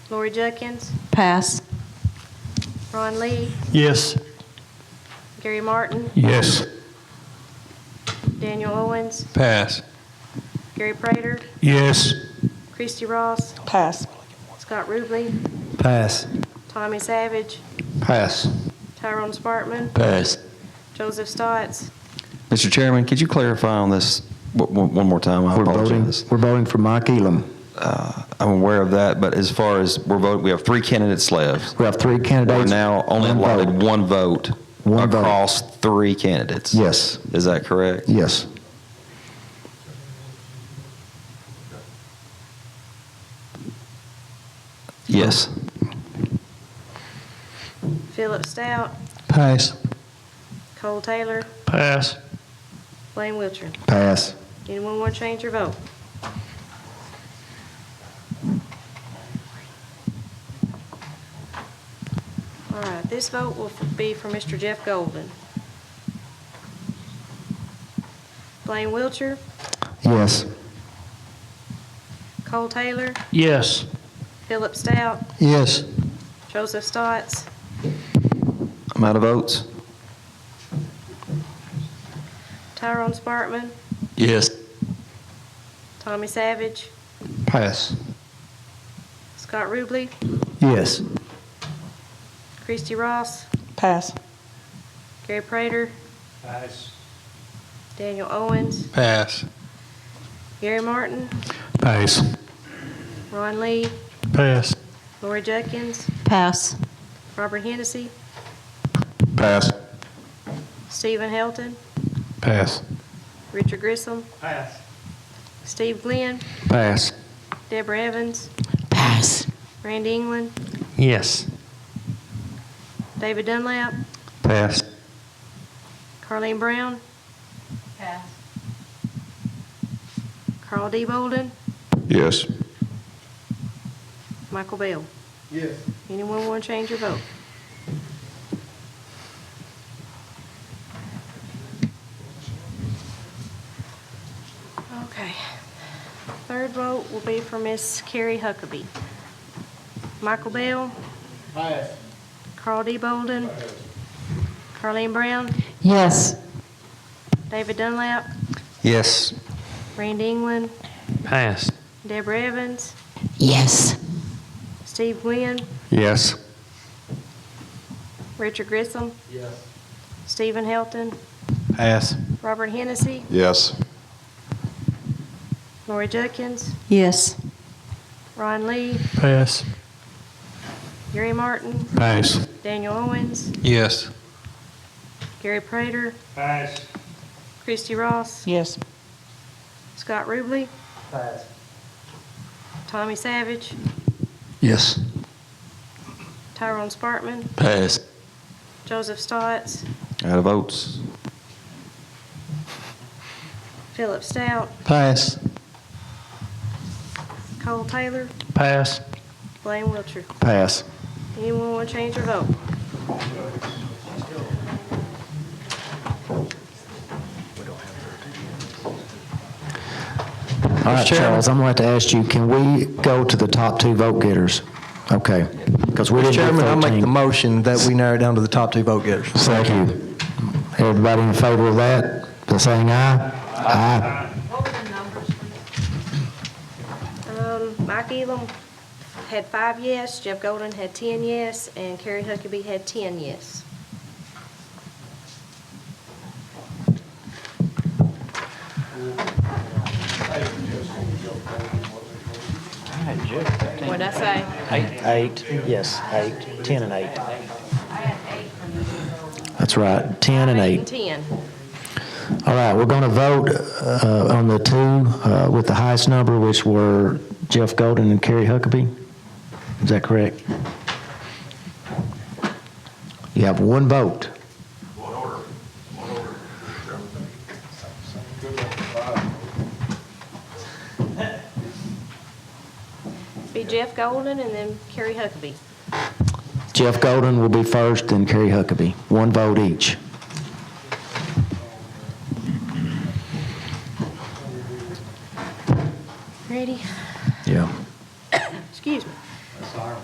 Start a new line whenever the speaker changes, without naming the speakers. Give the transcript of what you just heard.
Lori Jenkins,
Pass.
Ron Lee,
Yes.
Gary Martin,
Yes.
Daniel Owens,
Pass.
Gary Prater,
Yes.
Christie Ross,
Pass.
Scott Ruble,
Pass.
Tommy Savage,
Pass.
Tyrone Spartman,
Pass.
Joseph Stotts,
Mr. Chairman, could you clarify on this w- w- one more time? I
We're voting,
apologize.
we're voting for Mike Elam.
Uh, I'm aware of that, but as far as we're voting, we have three candidates left.
We have three
We're
candidates.
now only
One vote.
allotted one vote
One vote.
across three candidates.
Yes,
Is that correct?
yes.
Yes.
Philip Stout,
Pass.
Cole Taylor,
Pass.
Blaine Wiltshire.
Pass.
Anyone want to change your vote? All right, this vote will be for Mr. Jeff Golden. Blaine Wiltshire,
Yes.
Cole Taylor,
Yes.
Philip Stout,
Yes.
Joseph Stotts,
I'm out of votes.
Tyrone Spartman,
Yes.
Tommy Savage,
Pass.
Scott Ruble,
Yes.
Christie Ross,
Pass.
Gary Prater,
Pass.
Daniel Owens,
Pass.
Gary Martin,
Pass.
Ron Lee,
Pass.
Lori Jenkins,
Pass.
Robert Hennessy,
Pass.
Stephen Helton,
Pass.
Richard Grissom. Pass. Steve Glenn,
Pass.
Deborah Evans,
Pass.
Randy England,
Yes.
David Dunlap,
Pass.
Carleen Brown,
Pass.
Carl D. Bolden,
Yes.
Michael Bell. Yes. Anyone want to change your vote? Okay. Third vote will be for Miss Carrie Huckabee. Michael Bell. Carl D. Bolden. Carleen Brown.
Yes.
David Dunlap.
Yes.
Randy England.
Pass.
Deborah Evans.
Yes.
Steve Glenn.
Yes.
Richard Grissom. Yes. Stephen Helton.
Pass.
Robert Hennessy.
Yes.
Lori Jenkins.
Yes.
Ron Lee.
Pass.
Gary Martin.
Pass.
Daniel Owens.
Yes.
Gary Prater. Pass. Christie Ross.
Yes.
Scott Ruble. Tommy Savage.
Yes.
Tyrone Spartman.
Pass.
Joseph Stotts.
Out of votes.
Philip Stout.
Pass.
Cole Taylor.
Pass.
Blaine Wiltshire.
Pass.
Anyone want to change their vote?
All right, Charles, I'm going to have to ask you, can we go to the top two vote getters? Okay, because we
Mr.
didn't
Chairman, I
do
make the
13.
motion that we narrow it down to the top two vote getters.
Thank you. Everybody in favor of that, by saying aye? Aye.
Um, Mike Elam had five yes, Jeff Golden had ten yes, and Carrie Huckabee had ten yes. What'd I say?
Eight, yes, eight, 10 and eight. That's right, 10 and eight.
Ten.
All right, we're going to vote uh, on the two uh, with the highest number, which were Jeff Golden and Kerry Huckabee. Is that correct? You have one vote.
Be Jeff Golden and then Carrie Huckabee.
Jeff Golden will be first, then Kerry Huckabee. One vote each.
Ready?